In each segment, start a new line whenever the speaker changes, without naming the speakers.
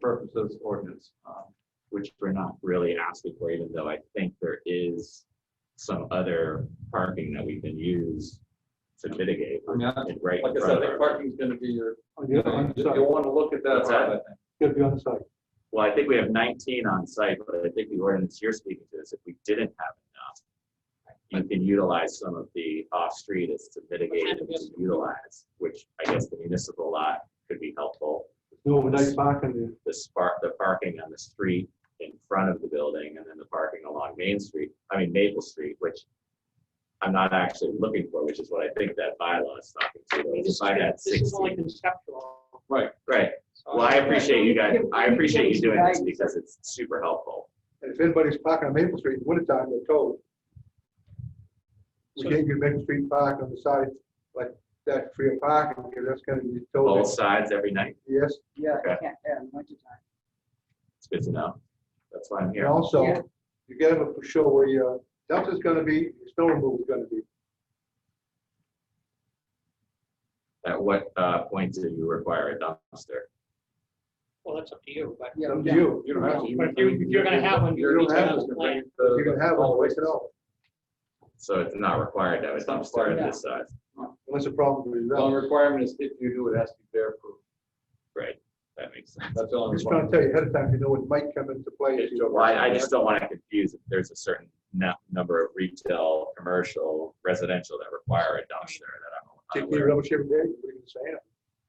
purpose of this ordinance, um, which we're not really asking for, even though I think there is some other parking that we can use to mitigate.
I mean, I-
it right
Like
in
I
front
said, I
of
think
our-
parking's gonna be your,
On the
you'll
other- on the side.
wanna look at that
What's that?
part, I think.
Gotta be on the side.
Well, I think we have nineteen on site, but I think the ordinance you're speaking to is if we didn't have enough, you can utilize some of the off-street is to mitigate and to utilize, which I guess the municipal lot could be helpful.
No overnight parking there.
the spark, the parking on the street in front of the building and then the parking along Main Street, I mean Maple Street, which I'm not actually looking for, which is what I think that bylaw is talking to. If I had
This is only
sixty,
conceptual.
Right.
right,
Uh,
well, I appreciate you guys, I appreciate you doing this because it's super helpful.
And if anybody's parking on Maple Street in the wintertime, they're told. We
So-
can't get Maple Street park on the side like that free of parking, because that's gonna be
Both
told.
sides every night,
Yes,
Yeah,
Okay.
you can't, yeah, in winter time.
it's good to know, that's why I'm
and
here.
Yeah.
also, you gotta have a for sure where your dumpster's gonna be, your snow removal's gonna be.
At what, uh, point do you require a dumpster?
Well, that's up to you, but
Yeah,
Up to
yeah.
you, you don't have to.
But if you- if you're gonna have one, you
don't
need to
have
have
one.
a plan.
You can have one, waste it all,
So it's not required to have a
It's not
dumpster of
required.
this size,
unless the problem is
The only
that.
requirement is if you do, it has to be bear proof.
right, that makes sense.
That's the only
I'm just trying to
requirement.
tell you ahead of time, you know what might come into play. if you don't-
Well, I, I just don't want to confuse if there's a certain nu- number of retail, commercial, residential that require a dumpster that I'm
Take
unaware
your
of.
rubbish every day, what are you gonna say?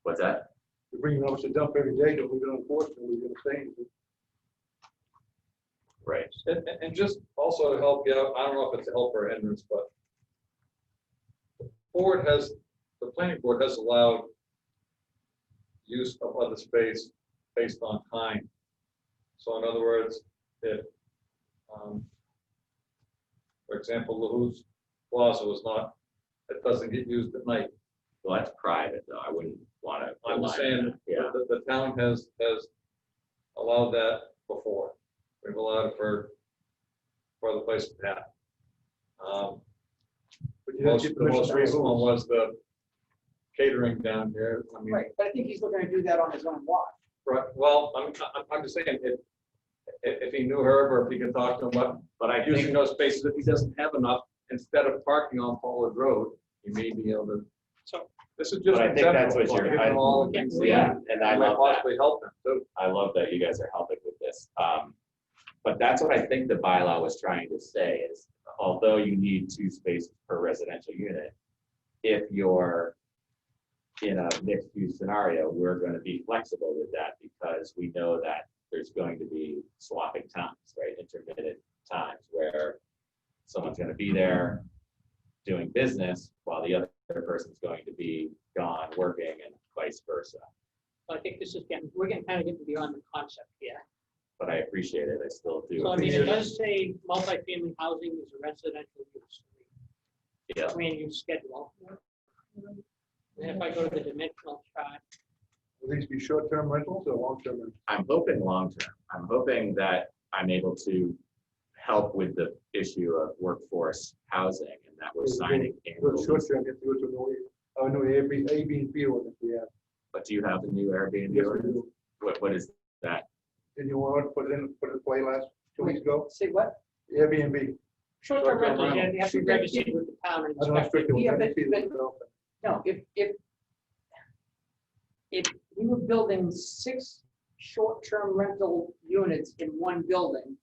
What's that?
You bring your rubbish to dump every day, don't leave it on the porch, nobody's gonna say anything.
Right.
And, and- and just also to help you out, I don't know if it's a help or a hindrance, but the board has, the planning board has allowed use of other space based on time. So in other words, if, um, for example, LaHoo's Plaza was not, it doesn't get used at night.
Well, that's private though. I wouldn't want to.
I'm just saying,
Yeah,
the, the town has, has allowed that before. We've allowed it for, for the place to happen. Um,
But you don't
Most,
get
the most
permission to
recent
have
one was
rules.
the catering down here. I mean,
Right, but I think he's looking to do that on his own watch.
right, well, I'm, I'm, I'm just saying, if, if, if he knew Herb or if he could talk to him, but
but I
using
think,
those spaces, if he doesn't have enough, instead of parking on Pollard Road, he may be able to.
So-
This is just.
But I think that's
example,
what you're-
given
I-
all the things that
yeah, and I
might
love that.
Possibly help him too.
I love that you guys are helping with this. Um, but that's what I think the bylaw was trying to say is although you need two spaces per residential unit, if you're in a mixed use scenario, we're gonna be flexible with that because we know that there's going to be swapping times, right? Intermittent times where someone's gonna be there doing business while the other person's going to be gone working and vice versa.
I think this is getting, we're getting kind of getting beyond the concept here.
But I appreciate it. I still do.
So I mean,
appreciate
it
it.
does say multifamily housing is a residential use.
Yeah.
Plan use schedule. And if I go to the dimensional chart,
Will these be short-term rentals or long-term rentals?
I'm hoping long term. I'm hoping that I'm able to help with the issue of workforce housing and that we're signing.
Well,
annual leases.
short-term, you have to go to an O- uh, no, Airbnb, Airbnb one if we have.
But do you have the new Airbnb?
Yes, we
ordinance?
do.
What, what is that?
Didn't you want to put it in, put it in play last, two weeks ago?
Say what?
Airbnb.
Short-term
short-term rentals,
rental.
you have to register with the town and
I don't know if
inspect it.
it was
Yeah, but-
empty,
but-
though.
No, if, if, if we were building six short-term rental units in one building,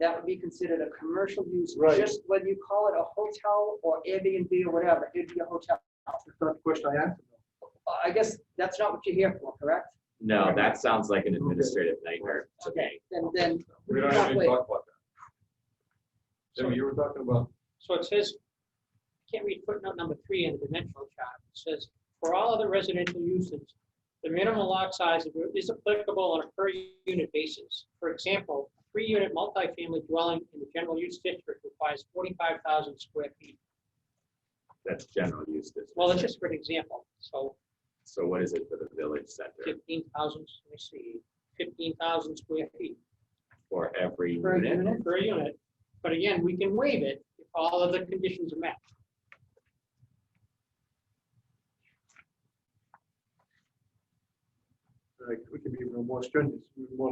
that would be considered a commercial use.
Right.
Just whether you call it a hotel or Airbnb or whatever, it'd be a hotel.
That's not the question I asked.
I guess that's not what you're here for, correct?
No, that sounds like an administrative nightmare to me.
Then, then.
We don't have any
Exactly.
talk about that. Jimmy, you were talking about,
So it says, I can't read footnote number three in the dimensional chart. It says, for all other residential uses, the minimum lot size is applicable on a per unit basis. For example, a three-unit multifamily dwelling in the general use district requires forty-five thousand square feet.
That's general use district.
Well, that's just for an example. So
So what is it for the village center?
fifteen thousand, let me see, fifteen thousand square feet
For every
Per
unit?
unit?
per unit. But again, we can waive it if all of the conditions are met.
Like, We can be even more stringent, even more